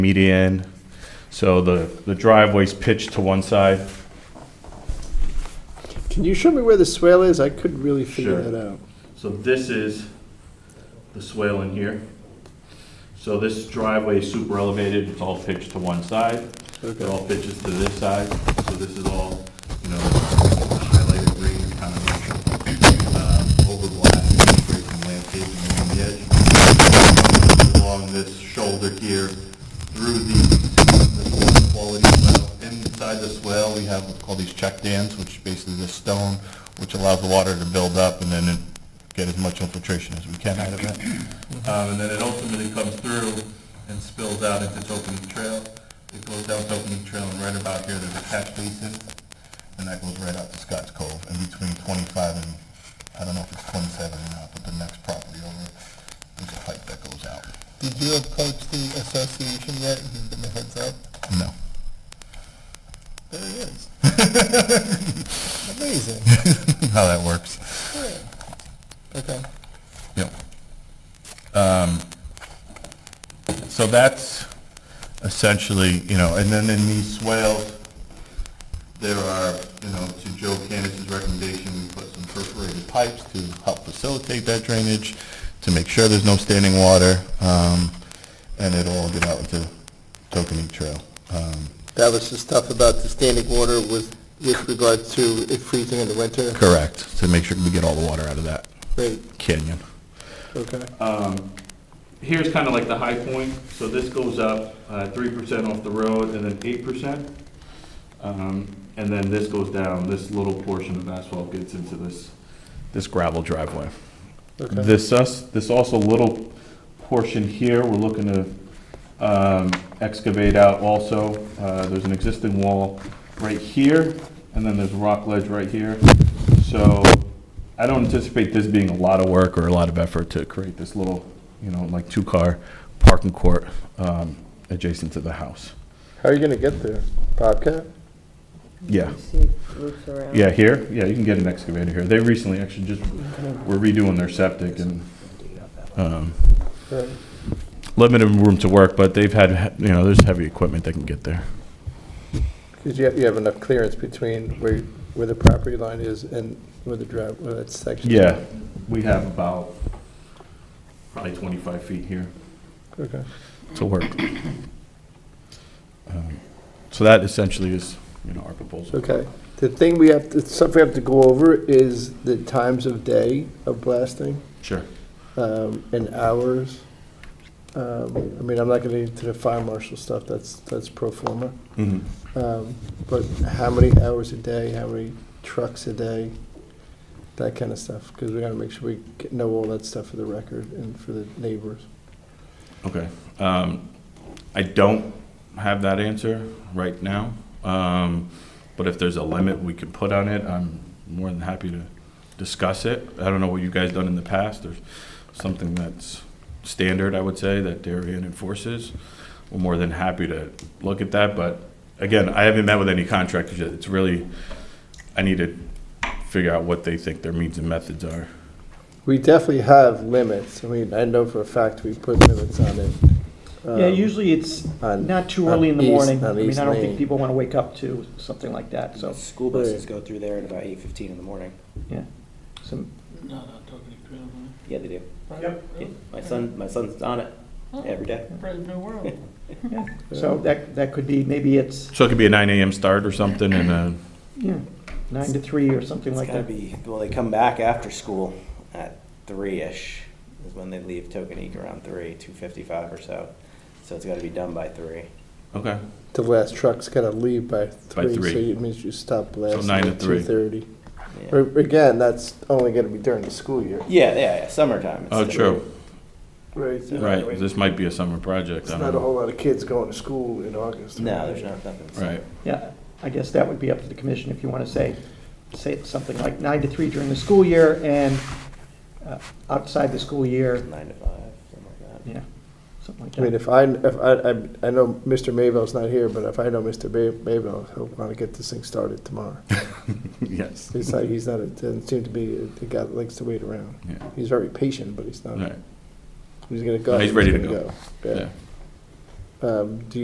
median. So the, the driveway's pitched to one side. Can you show me where the swale is? I couldn't really figure Sure. that out. So this is the swale in here. So this driveway is super elevated, it's all pitched to one side. It Okay, all pitches to this side, so this is all, you know, highlighted green, kind of um, overlap, straight from landscaping along the edge. Along this shoulder here, through the, this water quality swell. Inside the swell, we have what's called these check dams, which basically is stone, which allows the water to build up and then it- get as much infiltration as we can out of it. Um, And then it ultimately comes through and spills out into Tokenie Trail. It goes down Tokenie Trail and right about here, there's a catch basin, and that goes right out to Scotts Cove, in between 25 and, I don't know if it's 27 or not, but the next property over, there's a pipe that goes out. Did you approach the association yet and give them a heads up? No. There he is. Amazing. How that works. Okay. Yep. Um, So that's essentially, you know, and then in these swales, there are, you know, to Joe Candace's recommendation, we put some perforated pipes to help facilitate that drainage, to make sure there's no standing water, um, and it'll all get out into Tokenie Trail. Um, That was the stuff about the standing water with, with regard to it freezing in the winter? Correct, to make sure we get all the water out of that Great, canyon. okay. here's kind of like the high point, so this goes up uh, three percent off the road and then eight percent. Um, And then this goes down, this little portion of asphalt gets into this, this gravel driveway. okay. This, us- this also little portion here, we're looking to um, excavate out also. Uh, There's an existing wall right here, and then there's a rock ledge right here. So I don't anticipate this being a lot of work or a lot of effort to create this little, you know, like two-car parking court um, adjacent to the house. How are you gonna get there? Bobcat? Yeah, You see roofs around. yeah, here, yeah, you can get an excavator here. They recently actually just were redoing their septic and um, Right. limited room to work, but they've had, you know, there's heavy equipment that can get there. Because you have, you have enough clearance between where, where the property line is and where the drive, where that section. is. Yeah, we have about probably 25 feet here Okay, to work. Um, So that essentially is, you know, our proposal. okay. The thing we have, the stuff we have to go over is the times of day of blasting, Sure. um, and hours. Um, I mean, I'm not gonna get into the fire marshal stuff, that's, that's pro forma. Mhm. Um, But how many hours a day, how many trucks a day, that kind of stuff, because we gotta make sure we get- know all that stuff for the record and for the neighbors. Okay. Um, I don't have that answer right now, Um, but if there's a limit we could put on it, I'm more than happy to discuss it. I don't know what you guys done in the past, or something that's standard, I would say, that Darien enforces. We're more than happy to look at that, but again, I haven't met with any contractors yet. It's really, I need to figure out what they think their means and methods are. We definitely have limits, I mean, I know for a fact we put limits on it. Yeah, um, usually it's on- not too on early in the East- morning. I on mean, East I don't Main. think people want to wake up to something like that, so, School buses go through there at about eight fifteen in the morning. yeah. Some, Yeah, they do. Yeah, My son, my son's on it every day. yeah. So that, that could be, maybe it's, So it could be a nine AM start or something, and uh yeah, nine to three or something It's like gotta that. be, well, they come back after school at three-ish is when they leave Tokenique around three, two fifty-five or so. So it's gotta be done by three. okay. The last truck's gotta leave by By three, so three. it means you stop blasting nine to at three. two thirty. Yeah, Again, that's only gonna be during the school year. yeah, yeah, yeah, summertime. it's Oh, different. true. Right. Right, this might be a summer project, It's I not don't a whole know. lot of kids going to school in August. No, there's not nothing. Right, Yeah, I guess that would be up to the commission if you want to say, say it's something like nine to three during the school year and uh, outside the school year, Nine to five, something like that. yeah, something like I mean, that. if I, if I, I- I know Mr. Mayville's not here, but if I know Mr. Bay- Mayville, he'll want to get this thing started tomorrow. yes. He's not, he's not, a- doesn't seem to be, a- the guy that likes to wait around. Yeah. He's very patient, but he's not, Right, he's gonna go. No, he's ready to gonna go. yeah. Yeah, um, do you